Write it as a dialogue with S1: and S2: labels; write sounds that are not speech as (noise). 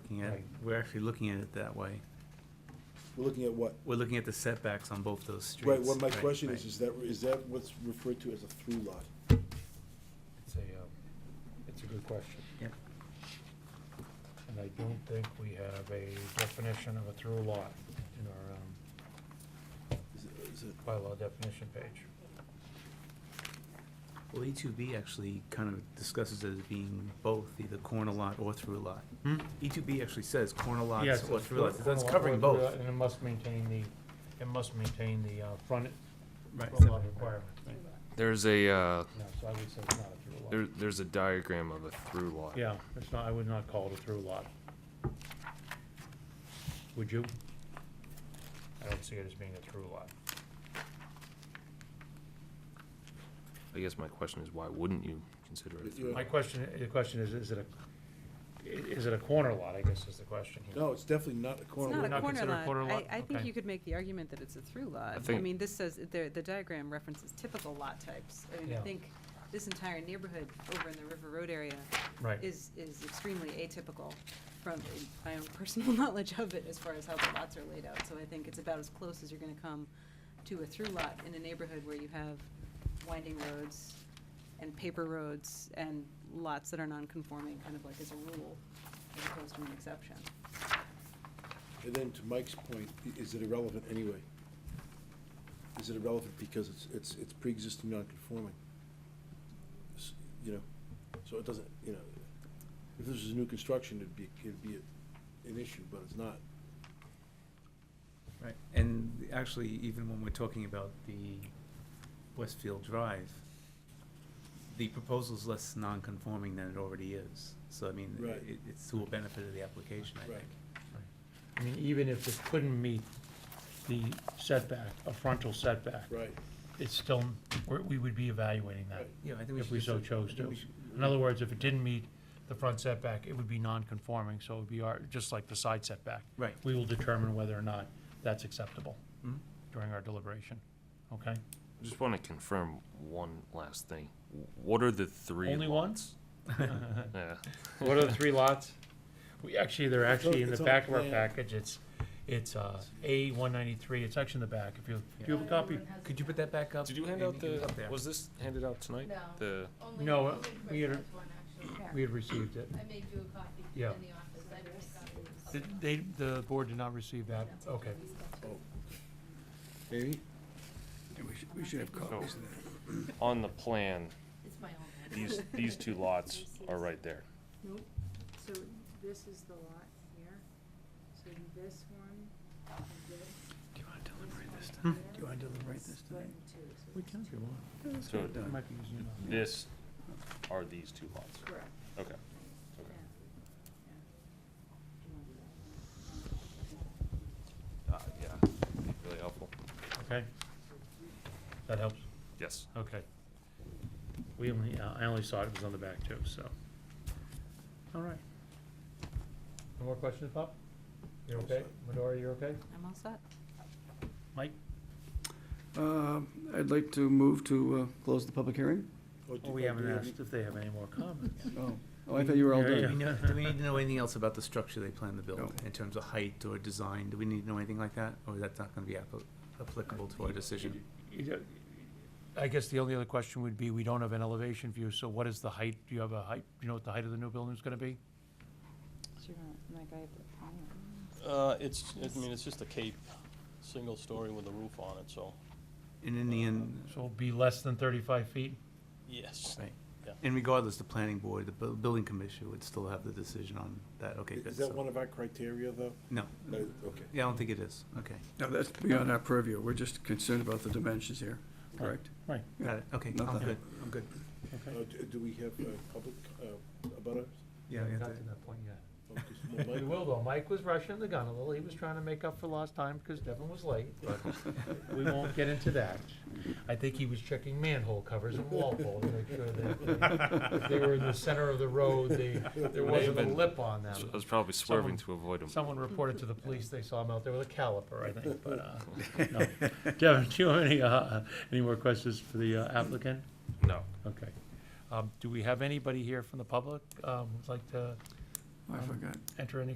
S1: looking at,
S2: Right.
S1: we're actually looking at it that way.
S2: We're looking at what?
S1: We're looking at the setbacks on both those streets.
S2: Right, what my question
S1: right.
S2: is, is that, is that what's referred to as a through lot?
S3: It's a, um, it's a good question.
S1: Yep.
S3: And I don't think we have a definition of a through lot in our um,
S2: Is it- is it-
S3: bylaw definition page.
S1: Well, E two B actually kind of discusses it as being both either corner lot or through lot. E two B actually says corner
S3: Hmm? Yes,
S1: lots or
S3: it's
S1: through lots,
S3: corner
S1: that's
S3: lot or
S1: covering
S3: through
S1: both.
S3: lot, And it must maintain the, it must maintain the uh, front
S1: Right,
S3: front lot
S1: setback,
S3: requirement.
S1: right.
S4: There's a, uh,
S3: No, so I would say it's not a through lot.
S4: there, there's a diagram of a through lot.
S3: Yeah, it's not, I would not call it a through lot. Would you? I don't see it as being a through lot.
S4: I guess my question is, why wouldn't you consider it a through?
S3: My question, the question is, is it a, i- is it a corner lot, I guess is the question here.
S2: No, it's definitely not a
S5: It's
S2: corner
S5: not
S2: lot.
S5: a
S3: not
S5: corner
S3: considered a
S5: lot.
S3: corner lot?
S5: I, I think
S3: Okay.
S5: you could make the argument that it's a through lot. I
S4: think-
S5: mean, this says, the, the diagram references typical lot types. I mean, I
S3: Yeah.
S5: think this entire neighborhood over in the River Road area
S3: Right.
S5: is, is extremely atypical from my own (laughs) personal knowledge of it as far as how the lots are laid out. So I think it's about as close as you're gonna come to a through lot in a neighborhood where you have winding roads and paper roads and lots that are non-conforming, kind of like as a rule, as opposed to an exception.
S2: And then to Mike's point, i- is it irrelevant anyway? Is it irrelevant because it's, it's, it's pre-existing non-conforming? S- You know, so it doesn't, you know, if this is new construction, it'd be, it'd be a- an issue, but it's not.
S1: Right, and actually, even when we're talking about the Westfield Drive, the proposal's less non-conforming than it already is. So I mean, i-
S2: Right.
S1: it, it's to a benefit of the application, I
S2: Right.
S1: think.
S3: I mean, even if it couldn't meet the setback, a frontal setback,
S2: Right.
S3: it's still, we're- we would be evaluating that.
S2: Right.
S1: Yeah, I think we should.
S3: If we
S1: just-
S3: so
S1: I
S3: chose
S1: think we
S3: to.
S1: should-
S3: In other words, if it didn't meet the front setback, it would be non-conforming, so it would be our, just like the side setback.
S1: Right.
S3: We will determine whether or not that's acceptable
S1: Mhm.
S3: during our deliberation, okay?
S4: I Just wanna confirm one last thing. What are the three
S3: Only one?
S4: lots? Yeah,
S3: What are the three lots? We, actually, they're actually in the
S2: it's on
S3: back of our
S2: plan.
S3: package, it's, it's, uh, A one ninety-three, it's actually in the back, if you, do you have a copy?
S1: Could you put that back up?
S4: did you hand
S1: Amy?
S4: out
S1: It's
S4: the,
S1: up there.
S4: was this handed out tonight?
S6: No.
S4: The,
S6: Only,
S3: No, uh,
S6: only
S3: we had a-
S6: Chris has one, actually.
S3: We had received it.
S6: I made you a copy in the
S3: Yeah.
S6: office, I didn't make copies.
S3: Did, they, the board did not receive that, okay.
S2: Amy?
S5: Oh.
S4: so, on the plan,
S6: It's my own.
S4: these, these two lots are right there.
S7: Nope, so this is the lot here, so this one and this.
S1: Do you want to deliberate this
S7: one
S1: time?
S7: here
S1: Do you want to deliberate
S7: is
S1: this
S7: split
S1: time?
S7: in two, so
S1: We
S7: this
S1: can
S7: is
S1: if you want.
S4: So
S1: Done.
S3: It might be using it.
S4: this are these two lots.
S7: Correct,
S4: Okay.
S7: yeah,
S4: Okay.
S7: yeah.
S4: Uh, yeah, really helpful.
S3: Okay. That helps,
S4: Yes.
S3: okay. We only, uh, I only saw it was on the back too, so. All right. No more questions, Bob? You're okay? Medora, you're okay?
S5: I'm all set.
S3: Mike?
S8: Uh, I'd like to move to uh, close the public hearing.
S2: do-
S3: Oh, we
S2: do
S3: haven't
S2: you have-
S3: asked if they have any more comments.
S8: Oh, oh, I thought you were all
S3: Yeah,
S1: Do
S3: yeah.
S1: we
S8: done.
S1: know, do we need to know anything else about the structure they plan to build,
S8: No.
S1: in terms of height or design? Do we need to know anything like that, or is that not gonna be appo- applicable to our decision?
S3: I guess the only other question would be, we don't have an elevation view, so what is the height? Do you have a height, do you know what the height of the new building is gonna be?
S5: So you're gonna, like, I have the plans.
S9: Uh, it's, I mean, it's just a cape, single story with a roof on it, so,
S1: And in the end,
S3: So it'll be less than thirty-five feet?
S9: yes.
S1: Right.
S9: Yeah.
S1: And regardless, the planning board, the bu- building commission would still have the decision on that, okay, good.
S2: Is that
S1: so-
S2: one of our criteria, though?
S1: No,
S2: No, okay.
S1: yeah, I don't think it is, okay,
S8: No, that's beyond our purview. We're just concerned about the dimensions here, correct?
S3: Right,
S1: got it, okay,
S8: Not
S1: I'm
S8: that.
S1: good, I'm good.
S3: okay.
S2: Uh, do- Do we have uh, public uh, about us?
S1: Yeah, we have
S3: Not
S1: to-
S3: to that point yet.
S2: Oh, 'cause my
S3: We
S2: mic-
S3: will though, Mike was rushing the gun a little, he was trying to make up for lost time because Devin was late, (laughs) but we won't get into that. I think he was checking manhole covers in Walpole to make sure that if they were in the center of the road, they, there wasn't a lip on them.
S4: I was probably swerving
S3: Um, Someone-
S4: to avoid them.
S3: Someone reported to the police they saw him out there with a caliper, I think, but, uh, (laughs) no. Devin, do you have any, uh, any more questions for the uh, applicant?
S4: No.
S3: Okay. Um, do we have anybody here from the public, um, who'd like to
S8: I forgot.
S3: enter any